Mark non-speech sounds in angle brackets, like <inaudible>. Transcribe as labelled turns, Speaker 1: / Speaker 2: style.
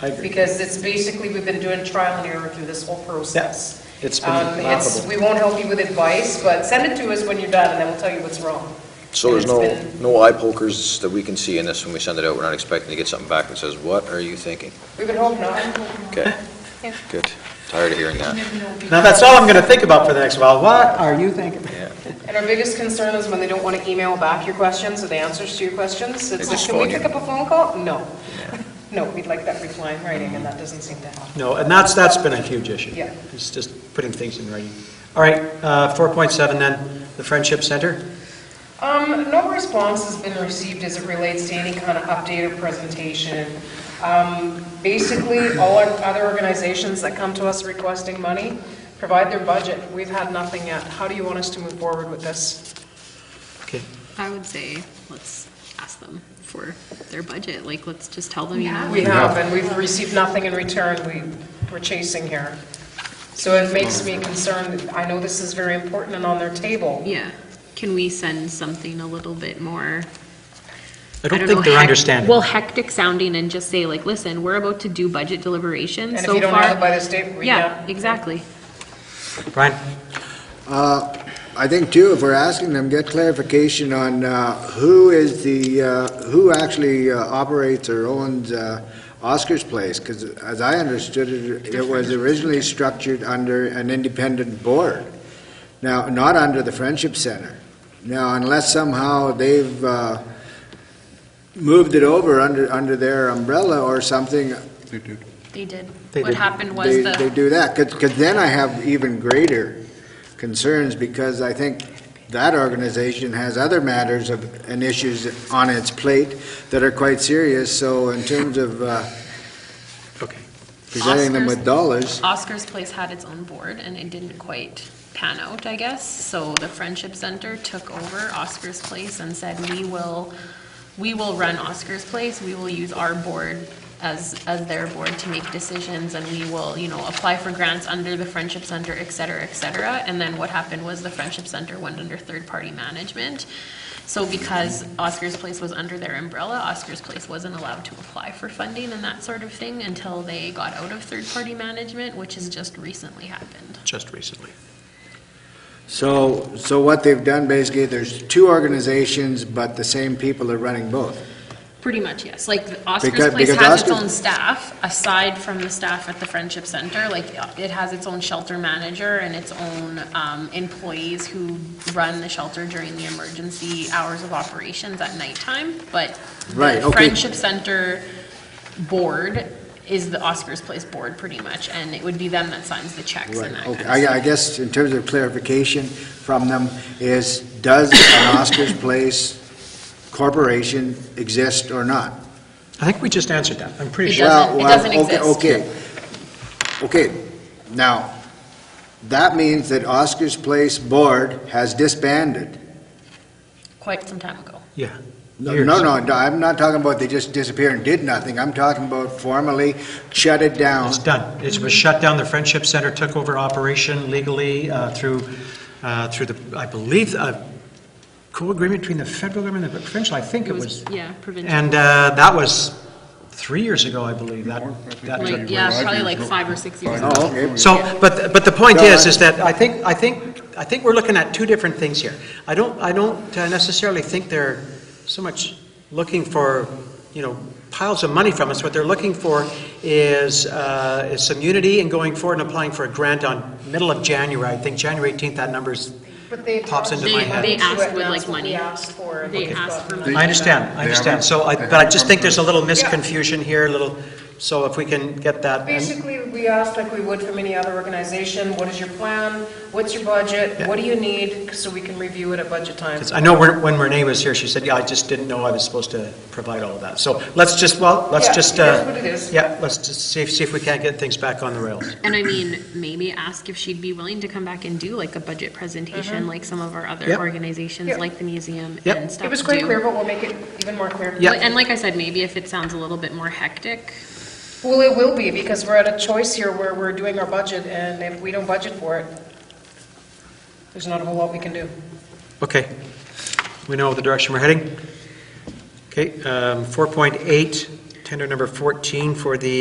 Speaker 1: I agree.
Speaker 2: Because it's basically, we've been doing trial and error through this whole process.
Speaker 1: It's been
Speaker 2: Um, it's,
Speaker 1: laughable.
Speaker 2: we won't help you with advice, but send it to us when you're done, and then we'll tell you what's wrong.
Speaker 3: So there's
Speaker 2: And
Speaker 3: no,
Speaker 2: it's been-
Speaker 3: no eye pokers that we can see in this when we send it out? We're not expecting to get something back that says, what are you thinking?
Speaker 2: We would hope not.
Speaker 3: Okay, good. Tired of hearing that.
Speaker 1: Now, that's all I'm going to think about for the next while. What are you thinking?
Speaker 3: Yeah.
Speaker 2: And our biggest concern is when they don't want to email back your questions or the answers to your questions. It's like,
Speaker 3: just
Speaker 2: can we
Speaker 3: phone you.
Speaker 2: pick up a phone call? No. <laughs> No, we'd like that reply in writing, and that doesn't seem to happen.
Speaker 1: No, and that's, that's been a huge issue.
Speaker 2: Yeah.
Speaker 1: It's just putting things in writing. All right, uh, 4.7 then, the Friendship Center.
Speaker 2: Um, no response has been received as it relates to any kind of update or presentation. Um, basically, all our other organizations that come to us requesting money provide their budget. We've had nothing yet. How do you want us to move forward with this?
Speaker 1: Okay,
Speaker 4: I would say, let's ask them for their budget, like, let's just tell them, you know.
Speaker 2: We have, and we've received nothing in return. We, we're chasing here. So it makes me concerned. I know this is very important and on their table.
Speaker 4: Yeah, can we send something a little bit more?
Speaker 1: I don't
Speaker 4: know,
Speaker 1: think they're
Speaker 4: hec-
Speaker 1: understanding.
Speaker 4: Well, hectic sounding and just say like, listen, we're about to do budget
Speaker 2: And
Speaker 4: deliberations so
Speaker 2: if
Speaker 4: far.
Speaker 2: you don't have it by this date, we,
Speaker 4: Yeah,
Speaker 2: yeah.
Speaker 4: exactly.
Speaker 1: Brian?
Speaker 5: Uh, I think too, if we're asking them, get clarification on uh, who is the, uh, who actually uh, operates or owns uh, Oscar's Place, because as I understood it, it was originally structured under an independent board, now, not under the Friendship Center. Now, unless somehow they've uh, moved it over under, under their umbrella or something,
Speaker 4: They did.
Speaker 1: They What did.
Speaker 4: happened
Speaker 5: they, they do that, because then I have even greater concerns, because I think that organization has other matters of, and issues on its plate that are quite serious, so in terms of uh,
Speaker 1: Okay.
Speaker 5: presenting them with dollars,
Speaker 4: Oscar's Place had its own board and it didn't quite pan out, I guess. So the Friendship Center took over Oscar's Place and said, we will, we will run Oscar's Place. We will use our board as, as their board to make decisions and we will, you know, apply for grants under the Friendship Center, et cetera, et cetera. And then what happened was the Friendship Center went under third-party management. So because Oscar's Place was under their umbrella, Oscar's Place wasn't allowed to apply for funding and that sort of thing until they got out of third-party management, which has just recently happened.
Speaker 1: Just recently.
Speaker 5: so, so what they've done, basically, there's two organizations, but the same people are running both.
Speaker 4: Pretty much, yes. Like the Oscar's
Speaker 5: Because-
Speaker 4: Place
Speaker 5: because
Speaker 4: has its
Speaker 5: Oscar-
Speaker 4: own staff, aside from the staff at the Friendship Center. Like it has its own shelter manager and its own um, employees who run the shelter during the emergency hours of operations at nighttime. But
Speaker 5: Right,
Speaker 4: the
Speaker 5: okay.
Speaker 4: Friendship Center board is the Oscar's Place board pretty much, and it would be them that signs the checks
Speaker 5: Right,
Speaker 4: and that kind of
Speaker 5: okay.
Speaker 4: stuff.
Speaker 5: I I guess in terms of clarification from them is, does an Oscar's Place corporation exist or not?
Speaker 1: I think we just answered that, I'm pretty
Speaker 4: It
Speaker 1: sure.
Speaker 4: doesn't-
Speaker 5: Well,
Speaker 4: doesn't
Speaker 5: well, okay,
Speaker 4: exist.
Speaker 5: Okay, okay. Now, that means that Oscar's Place Board has disbanded.
Speaker 4: Quite some time ago.
Speaker 1: Yeah.
Speaker 5: No,
Speaker 1: Years.
Speaker 5: no, no, I'm not talking about they just disappeared and did nothing. I'm talking about formally shut it down.
Speaker 1: It's done. It was shut down, the Friendship Center took over operation legally uh, through, uh, through the, I believe, a co-agreement between the federal government and the provincial, I think it was.
Speaker 4: Yeah, provincial.
Speaker 1: And uh, that was three years ago, I believe, that, that took
Speaker 4: Like, yeah, probably like five or six years ago.
Speaker 5: Oh, okay.
Speaker 1: So, but, but the point
Speaker 5: No,
Speaker 1: is,
Speaker 5: I-
Speaker 1: is that I think, I think, I think we're looking at two different things here. I don't, I don't uh, necessarily think they're so much looking for, you know, piles of money from us. What they're looking for is, uh, is some unity and going forward and applying for a grant on middle of January. I think January 18th, that number's,
Speaker 2: But they
Speaker 1: Pops into
Speaker 2: talked
Speaker 1: my
Speaker 2: to
Speaker 1: head.
Speaker 4: They- they
Speaker 2: us
Speaker 4: asked
Speaker 2: and
Speaker 4: with,
Speaker 2: that's
Speaker 4: like,
Speaker 2: what we
Speaker 4: money.
Speaker 2: asked for.
Speaker 4: They
Speaker 2: Okay.
Speaker 4: asked for money.
Speaker 1: I understand, I understand. So I, but I just think there's a little misconfusion here, a little, so if we can get that. and-
Speaker 2: Basically, we asked like we would from any other organization, what is your plan? What's your budget?
Speaker 1: Yeah.
Speaker 2: What do you need? So we can review it at budget time.
Speaker 1: 'Cause I know when when Renee was here, she said, yeah, I just didn't know I was supposed to provide all of that. So let's just, well, let's
Speaker 2: Yeah,
Speaker 1: just.
Speaker 2: it is
Speaker 1: uh,
Speaker 2: what it is.
Speaker 1: Yeah, let's just see if, see if we can't get things back on the rails.
Speaker 4: And I mean, maybe ask if she'd be willing to come back and do like a budget presentation, like some of our other
Speaker 1: Yep.
Speaker 4: organizations,
Speaker 2: Mm-hmm. Yep.
Speaker 4: like the museum
Speaker 1: Yep.
Speaker 4: and stuff.
Speaker 2: It was quite
Speaker 4: do.
Speaker 2: clear, but we'll make it even more clear.
Speaker 1: Yeah.
Speaker 4: And like I said, maybe if it sounds a little bit more hectic,
Speaker 2: Well, it will be because we're at a choice here where we're doing our budget and if we don't budget for it, there's not a whole lot we can do.
Speaker 1: Okay, we know the direction we're heading. Okay, um, 4.8, tender number 14 for the